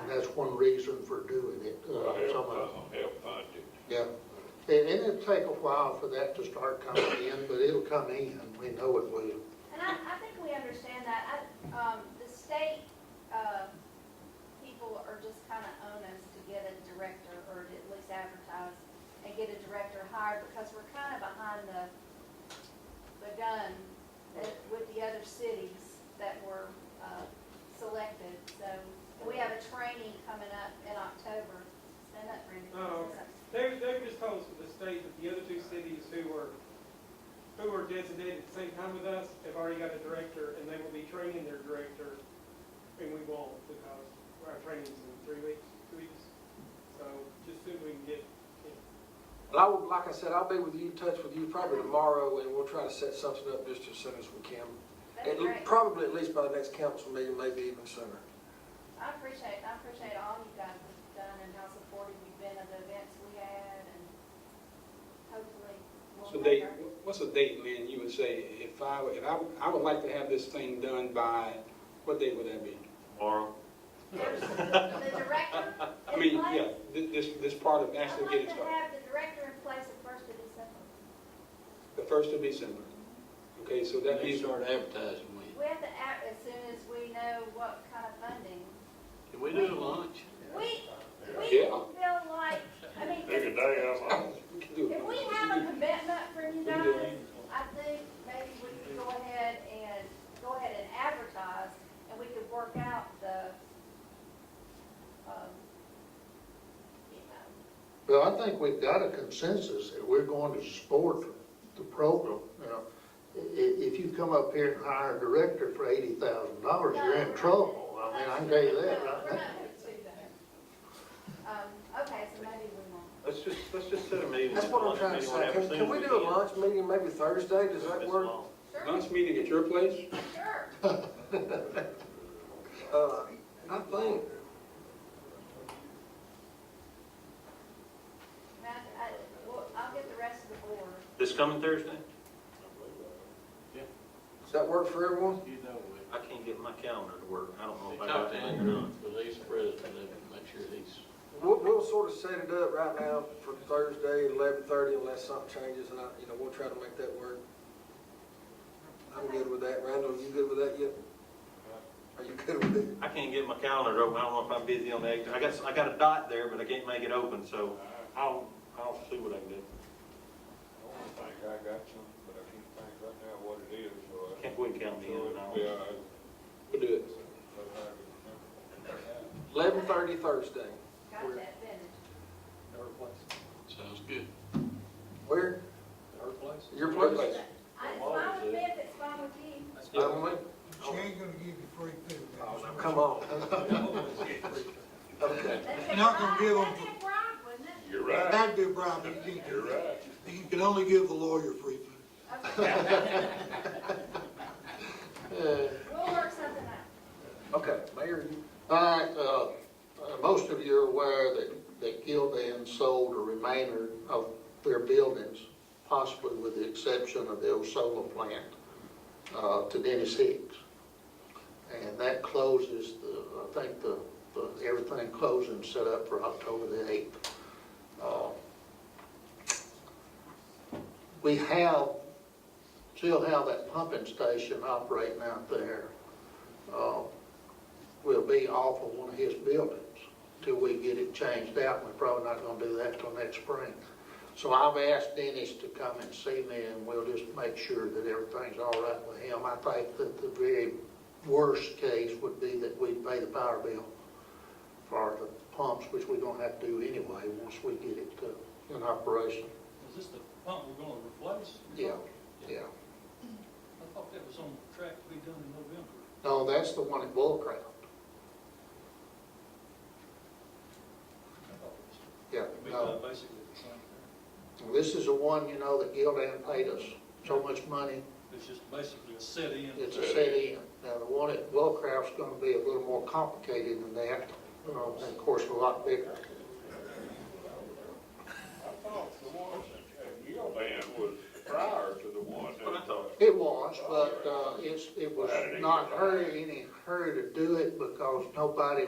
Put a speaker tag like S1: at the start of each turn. S1: And that's one reason for doing it,
S2: It'll
S1: uh, some
S2: help,
S1: of it.
S3: uh-huh.
S2: uh, help fund it.
S1: Yeah, and, and it'll take a while for that to start coming in, but it'll come in, we know it will.
S4: And I, I think we understand that. I, um, the state, uh, people are just kind of on us to get a director, or at least advertise, and get a director hired, because we're kind of behind the, the gun that- with the other cities that were, uh, selected. So, and we have a training coming up in October. Stand up, Brandon.
S5: Oh, They, they were just told from the state that the other two cities who were, who were designated at the same time with us have already got a director, and they will be training their director, and we won't, because our training's in three weeks, two weeks. So just soon we can get,
S3: But I will, like I said, I'll be with you, in touch with you probably tomorrow, and we'll try to set something up just as soon as we can.
S4: That'd
S3: And
S4: be great.
S3: probably at least by the next council meeting, maybe even sooner.
S4: I appreciate, I appreciate all you guys have done and how supportive you've been of the events we had and hopefully we'll.
S6: So date,
S4: have our-
S6: what's a date, Lynn, you would say, if I, if I, I would like to have this thing done by, what date would that be?
S7: Tomorrow,
S4: There's The director
S6: I
S4: in
S6: mean, yeah,
S4: place.
S6: thi- this, this part of
S4: I'd
S6: actually
S4: like
S6: getting
S4: to
S6: started,
S4: have the director in place at first of December.
S6: the first of December. Okay, so that
S8: They
S6: means,
S8: start advertising when?
S4: We have to act as soon as we know what kind of funding.
S8: Can we do a lunch?
S4: We, we
S6: Yeah.
S4: feel like, I mean,
S2: Take a day off.
S6: we can do it.
S4: if we have a commitment from you
S6: We can do it.
S4: guys, I think maybe we could go ahead and, go ahead and advertise, and we could work out the, um, you know,
S1: Well, I think we've got a consensus that we're going to support the program. Now, i- i- if you come up here and hire a director for eighty thousand dollars, you're in trouble. I mean, I can tell you that right
S4: No, We're
S1: now.
S4: not gonna do that. Um, okay, so maybe we won't.
S7: let's just, let's just set a meeting.
S3: That's what I'm trying to say. Can, can we do a lunch meeting maybe Thursday? Does that work?
S6: Lunch meeting at your place?
S4: Sure, sure.
S3: Uh, I think,
S4: Now, I, well, I'll get the rest of the board.
S7: This coming Thursday?
S3: does that work for everyone?
S8: You know it.
S7: I can't get my calendar to work, I don't know if I
S8: Talk to
S7: got it or not.
S8: Andrew, the lease president, and make sure he's,
S3: We'll, we'll sort of set it up right now for Thursday, eleven thirty, unless something changes, and I, you know, we'll try to make that work. I'm good with that. Randall, you good with that yet? Are you good with it?
S7: I can't get my calendar open, I don't know if I'm busy on the, eighth. I got, I got a dot there, but I can't make it open, so I'll, I'll see what I can do.
S2: I don't think I got something, but I can't think right now what it is, so. I-
S7: Can't we count me in
S2: So
S7: and
S2: it'll
S7: out?
S2: be all right.
S6: We'll do it.
S2: But I can remember.
S3: Eleven thirty Thursday.
S4: Got that finished.
S8: sounds good.
S3: Where?
S8: Her place?
S3: Your place?
S4: I, it's fine with me if it's fine with you.
S3: I don't know.
S9: She ain't gonna give you free food. that's what
S3: Come on. Okay.
S4: That's a
S9: Not gonna
S4: bribe-
S9: give 'em-
S4: That'd be a bribe, wouldn't it?
S2: You're
S9: she-
S2: right,
S9: That'd be a bribe, but you can't
S2: you're
S9: do that.
S2: right.
S9: You can only give the lawyer free food.
S4: Okay.
S1: Uh,
S4: We'll work something out.
S3: Okay, Mayor, you,
S1: All right, uh, uh, most of you are aware that, that Gildan sold a remainder of their buildings, possibly with the exception of the Osola plant, uh, to Dennis Hicks. And that closes, the I think the, the, everything closed and set up for October the eighth. Uh, We have, still have that pumping station operating out there. Uh, will be off of one of his buildings till we get it changed out. We're probably not gonna do that till next spring. So I've asked Dennis to come and see me and we'll just make sure that everything's all right with him. I think that the very worst case would be that we pay the power bill for the pumps, which we're gonna have to do anyway, once we get it uh, in operation.
S10: Is this the pump we're gonna replace?
S1: Yeah, yeah.
S10: I thought that was on track to be done in November.
S1: No, that's the one at Bull Crown.
S10: I thought it
S1: Yeah,
S10: was, we
S1: no.
S10: done basically the same thing.
S1: This is the one, you know, that Gildan paid us so much money
S10: It's just basically a set in.
S1: It's a set in. Now, the one at Wellcraft's gonna be a little more complicated than that, uh, and of course, a lot bigger.
S2: I thought the one at Gildan was prior to the one
S7: That's what I
S2: that.
S7: thought.
S1: It was, but, uh, it's, it was not her, any her to do it because nobody